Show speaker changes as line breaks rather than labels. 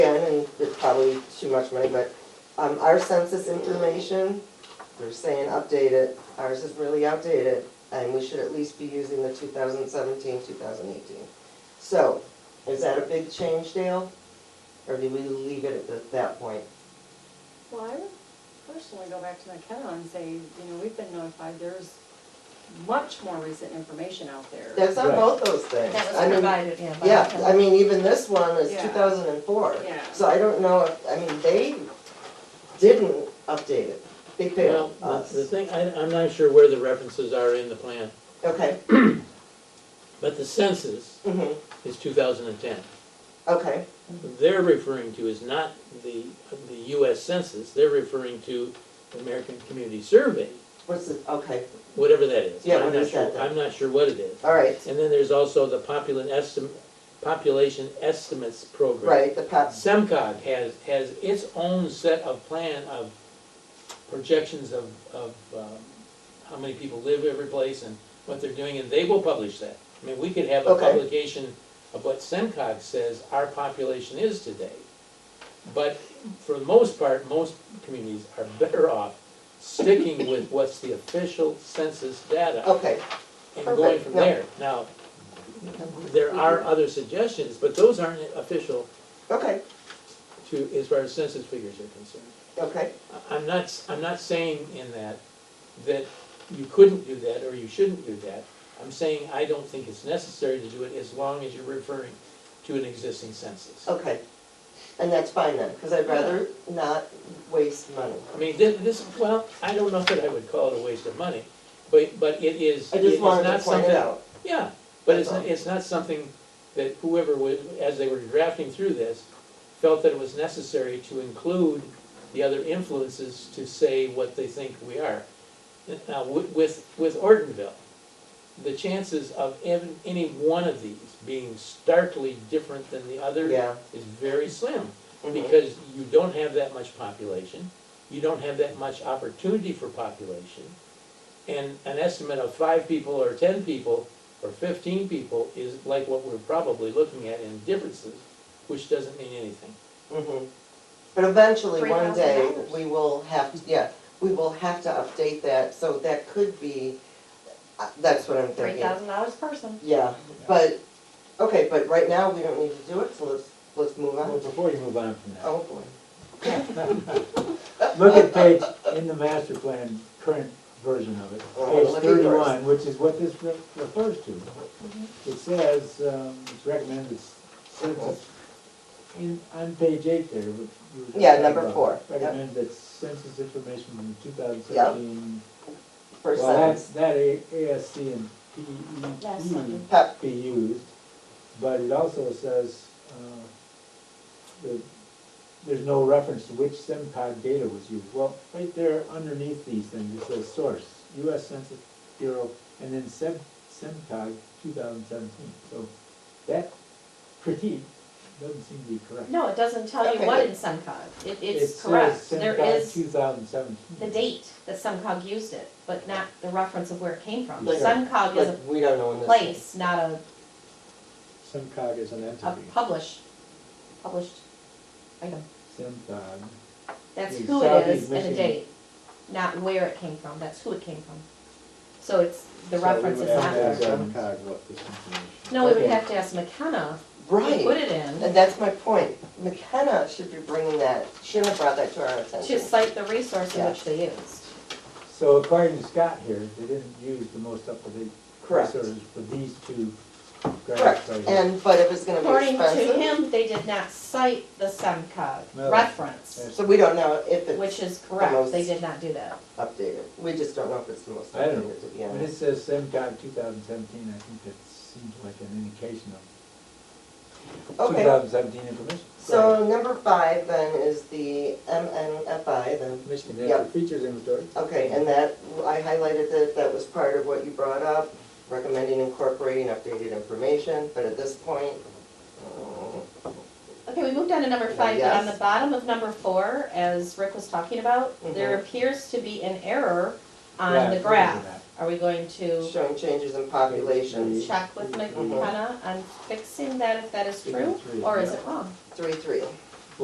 probably too much money, but, um, our census information, they're saying update it, ours is really outdated, and we should at least be using the 2017-2018. So, is that a big change, Dale? Or do we leave it at th- that point?
Well, I would personally go back to McKenna and say, you know, we've been notified, there's much more recent information out there.
That's on
Right.
both those things.
That
I
was
mean,
provided, yeah. by
Yeah,
him.
I mean, even this one is
Yeah.
two thousand and four.
Yeah.
So I don't know if, I mean, they didn't update it. They
Well,
failed
Uh, the- the
us.
thing, I, I'm not sure where the references are in the plan,
Okay,
but the census
mhm,
is two thousand and ten.
okay,
They're referring to is not the, the US Census, they're referring to the American Community Survey,
what's the, okay,
whatever that is.
Yeah,
I'm
what
not
is that
sure-
then?
I'm not sure what it is.
all right,
And then there's also the population estim, population estimates program.
right, the pets,
SEMCOG has, has its own set of plan of projections of, of, um, how many people live every place and what they're doing, and they will publish that. I mean, we could have a
Okay.
publication of what SEMCOG says our population is today. But for the most part, most communities are better off sticking with what's the official census data
okay,
and going
Oh, Perfect,
from
yeah.
there. Now, there are other suggestions, but those aren't official
okay,
to, as far as census figures are concerned.
okay,
I- I'm not, s- I'm not saying in that, that you couldn't do that or you shouldn't do that. I'm saying I don't think it's necessary to do it as long as you're referring to an existing census.
okay. And that's fine then, because I'd rather not waste money.
I mean, thi- this, well, I don't know that I would call it a waste of money, but, but it is,
I
it is
just wanted to
not
point it
something
out.
Yeah, but it's,
That's all.
it's not something that whoever was, as they were drafting through this, felt that it was necessary to include the other influences to say what they think we are. Now, wi- with, with Ortonville, the chances of ev- any one of these being starkly different than the other
Yeah.
is very slim
mhm,
because you don't have that much population, you don't have that much opportunity for population, and an estimate of five people or ten people or fifteen people is like what we're probably looking at in differences, which doesn't mean anything.
mhm. But eventually, one day,
$3,000.
we will have, to. yeah, we will have to update that, so that could be, uh, that's what I'm
Three
thinking.
thousand dollars per person.
Yeah, but, okay, but right now, we don't need to do it, so let's, let's move
Well,
on.
before you move on from that,
Oh, uh, boy.
look at page, in the master plan, current version of it,
Oh,
page
let me first.
thirty-one, which is what this re- refers to.
Mm-hmm.
It says, um, it's recommended census, in, on page eight there, which you were just
Yeah,
talking
number
about,
four, yep.
Recommend that census information from two thousand seventeen.
First
Well, that's,
sentence,
that A- ASC and E PEP
Last sentence.
Pep,
be used, but it also says, uh, that there's no reference to which SimCog data was used. Well, right there underneath these things, it says source, US Census Bureau, and then Sim, SimCog two thousand seventeen. So that critique doesn't seem to be correct.
No, it doesn't tell
Okay,
you what
good.
in SEMCOG. It, it's correct. There
It says SimCog
is
two thousand seventeen.
the date that SEMCOG used it, but not the reference of where it came from.
Like-
SEMCOG
like,
is a
we don't know when this.
place, not a,
SimCog is an
a
entity.
published, published item.
SimCog.
That's
The
who it
Southeast
is and the
Michigan-
date, not where it came from. That's who it came from. So it's, the
So we
reference is
would
not.
have to
there.
ask SEMCOG what this information.
No, we would
Okay.
have to ask McKenna to put
Right,
it in,
and that's my point. McKenna should be bringing that, shouldn't have brought that to our
to
attention.
cite the resource in which they used.
So according to Scott here, they didn't use the most up-to-date
Correct,
Sort of For these two graphs
correct,
right here.
and, but if it's gonna be
According to
expensive,
him, they did not cite the
No.
SEMCOG reference,
Yes.
so we don't know if
which
it's
is correct, they did not do that.
updated. We just don't know if it's the most
I don't know.
updated, to be
When it
honest.
says SEMCOG two thousand seventeen, I think that seems like an indication of two
Okay,
thousand seventeen information.
so number five then is the MNFI, the
Michigan
Natural Yep.
Features Inventory.
Okay, and that, I highlighted that, that was part of what you brought up, recommending incorporating updated information, but at this point, uh,
Okay, we moved on to number five, but on
Yes. Mm-hmm.
the bottom of number four, as Rick was talking about, there appears to be an error on the
Right,
graph.
that.
Are we going to
showing changes in populations,
check with McKenna on fixing that if that is true, or is it wrong?
three, three.